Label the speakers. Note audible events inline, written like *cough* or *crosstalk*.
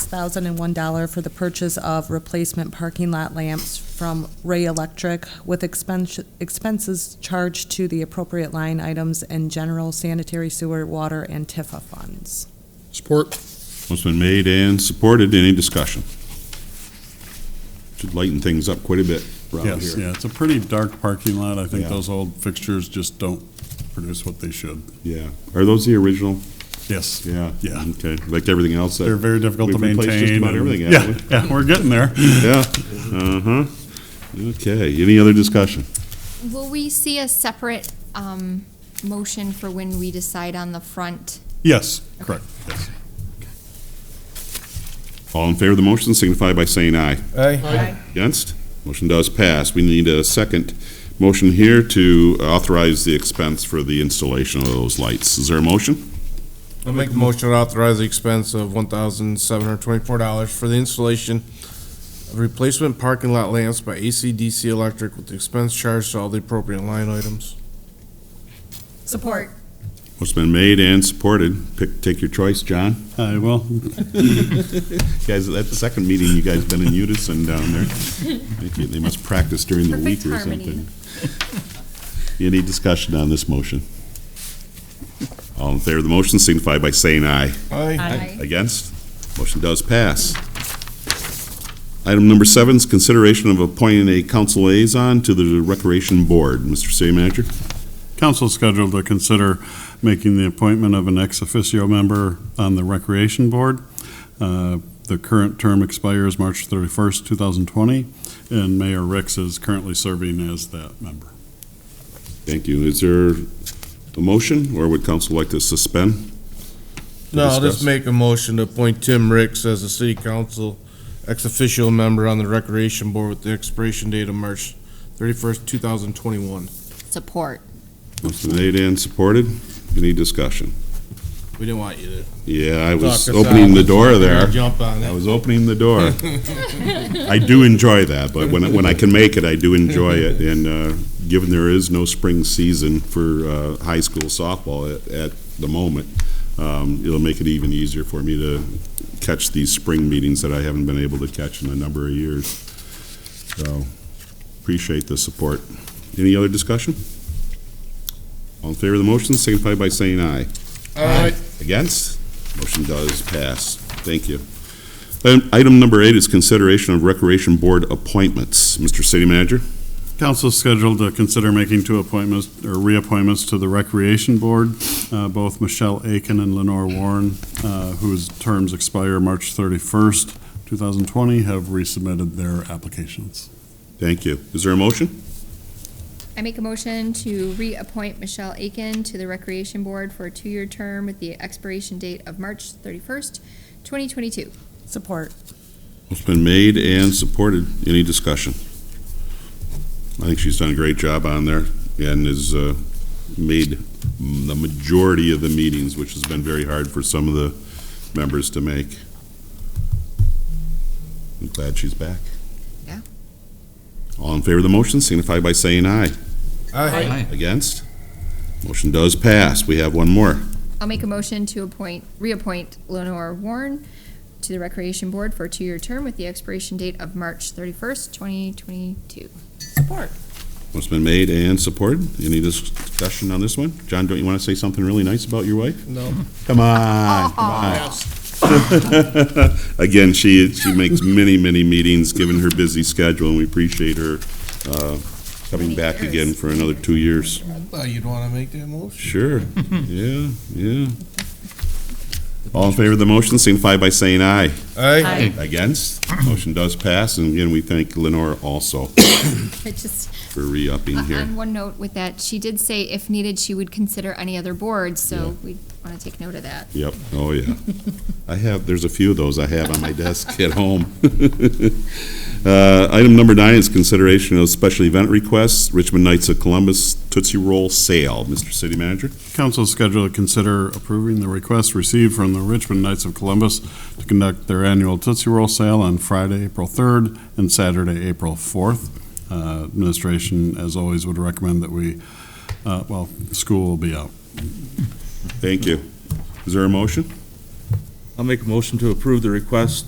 Speaker 1: $6,001 for the purchase of replacement parking lot lamps from Ray Electric with expense- expenses charged to the appropriate line items and general sanitary sewer, water, and TIFA funds.
Speaker 2: Support.
Speaker 3: Motion's been made and supported. Any discussion? Should lighten things up quite a bit around
Speaker 2: Yes,
Speaker 3: here.
Speaker 2: yeah, it's a pretty dark parking lot. I think
Speaker 3: Yeah.
Speaker 2: those old fixtures just don't produce what they should.
Speaker 3: Yeah. Are those the original?
Speaker 2: Yes,
Speaker 3: Yeah.
Speaker 2: Yeah.
Speaker 3: Okay, like everything else. that-
Speaker 2: they're very difficult to
Speaker 3: We've replaced
Speaker 2: maintain.
Speaker 3: just about
Speaker 2: and-
Speaker 3: everything,
Speaker 2: Yeah,
Speaker 3: haven't
Speaker 2: yeah, we're getting there.
Speaker 3: Yeah. Uh-huh. Okay, any other discussion?
Speaker 4: Will we see a separate um, motion for when we decide on the front?
Speaker 2: Yes, correct, yes.
Speaker 3: All in favor of the motion signify by saying aye.
Speaker 5: Aye.
Speaker 3: Against? Motion does pass. We need a second motion here to authorize the expense for the installation of those lights. Is there a motion?
Speaker 5: I'll make a motion to authorize the expense of one thousand seven hundred twenty-four dollars for the installation of replacement parking lot lamps by ACDC Electric with the expense charged to all the appropriate line items.
Speaker 6: Support.
Speaker 3: Motion's been made and supported. Pick, take your choice, John.
Speaker 2: I will.
Speaker 3: *laughs* Guys, that's the second meeting you guys been in unison down there. Thank you. They must practice during the week
Speaker 6: Perfect
Speaker 3: or
Speaker 6: harmony.
Speaker 3: something. Any discussion on this motion? All in favor of the motion signify by saying aye.
Speaker 6: Aye.
Speaker 3: Against? Motion does pass. Item number seven is consideration of appointing a council liaison to the Recreation Board. Mr. City Manager?
Speaker 2: Council scheduled to consider making the appointment of an ex officio member on the Recreation Board. Uh, The current term expires March 31st, 2020, and Mayor Ricks is currently serving as that member.
Speaker 3: Thank you. Is there a motion, or would council like to suspend?
Speaker 5: No, I'll
Speaker 3: discuss.
Speaker 5: just make a motion to appoint Tim Ricks as a city council ex-official member on the recreation board with the expiration date of March thirty-first, two thousand twenty-one.
Speaker 4: Support.
Speaker 3: Motion made and supported. Any discussion?
Speaker 5: We didn't want you
Speaker 3: Yeah, I
Speaker 5: to.
Speaker 3: was
Speaker 5: talk us
Speaker 3: opening
Speaker 5: out.
Speaker 3: the door
Speaker 5: We're gonna
Speaker 3: there.
Speaker 5: Jump on
Speaker 3: I
Speaker 5: it.
Speaker 3: was opening the
Speaker 5: *laughs*
Speaker 3: door. I do enjoy that, but when, when I can make it, I do enjoy it. And uh, given there is no spring season for uh, high school softball at, at the moment, um, it'll make it even easier for me to catch these spring meetings that I haven't been able to catch in a number of years. So appreciate the support. Any other discussion? All in favor of the motion, signify by saying aye.
Speaker 5: Aye.
Speaker 3: Against? Motion does pass. Thank you. Item- Item number eight is consideration of Recreation Board appointments. Mr. City Manager?
Speaker 2: Council scheduled to consider making two appointments, or reappointments to the Recreation Board, uh, both Michelle Aiken and Lenore Warren, uh, whose terms expire March 31st, 2020, have resubmitted their applications.
Speaker 3: Thank you. Is there a motion?
Speaker 4: I make a motion to reappoint Michelle Aiken to the Recreation Board for a two-year term with the expiration date of March thirty-first, twenty twenty-two.
Speaker 1: Support.
Speaker 3: It's been made and supported. Any discussion? I think she's done a great job on there and has uh, made the majority of the meetings, which has been very hard for some of the members to make. I'm glad she's back.
Speaker 4: Yeah.
Speaker 3: All in favor of the motion signify by saying aye.
Speaker 5: Aye.
Speaker 3: Against? Motion does pass. We have one more.
Speaker 4: I'll make a motion to appoint, reappoint Lenore Warren to the Recreation Board for a two-year term with the expiration date of March thirty-first, twenty twenty-two.
Speaker 1: Support.
Speaker 3: It's been made and supported. Any discussion on this one? John, don't you want to say something really nice about your wife?
Speaker 5: No.
Speaker 3: Come on, come on. *laughs* Again, she, she makes many, many meetings, given her busy schedule, and we appreciate her uh, coming back again for another two years.
Speaker 5: I thought you'd wanna make that motion.
Speaker 3: Sure, yeah, yeah. All in favor of the motion, signify by saying aye.
Speaker 5: Aye.
Speaker 3: Against? Motion does pass, and again, we thank Lenore also
Speaker 4: I just,
Speaker 3: for re-upping here.
Speaker 4: on one note with that, she did say if needed, she would consider any other board, so we want to take note of that.
Speaker 3: Yep, oh yeah. I have, there's a few of those I have on my desk at home. *laughs* Uh, Item number nine is consideration of special event requests, Richmond Knights of Columbus Tootsie Roll Sale. Mr. City Manager?
Speaker 2: Council scheduled to consider approving the request received from the Richmond Knights of Columbus to conduct their annual Tootsie Roll sale on Friday, April 3rd, and Saturday, April 4th. Uh, Administration, as always, would recommend that we, uh, well, school will be out.
Speaker 3: Thank you. Is there a motion?
Speaker 7: I'll make a motion to approve the request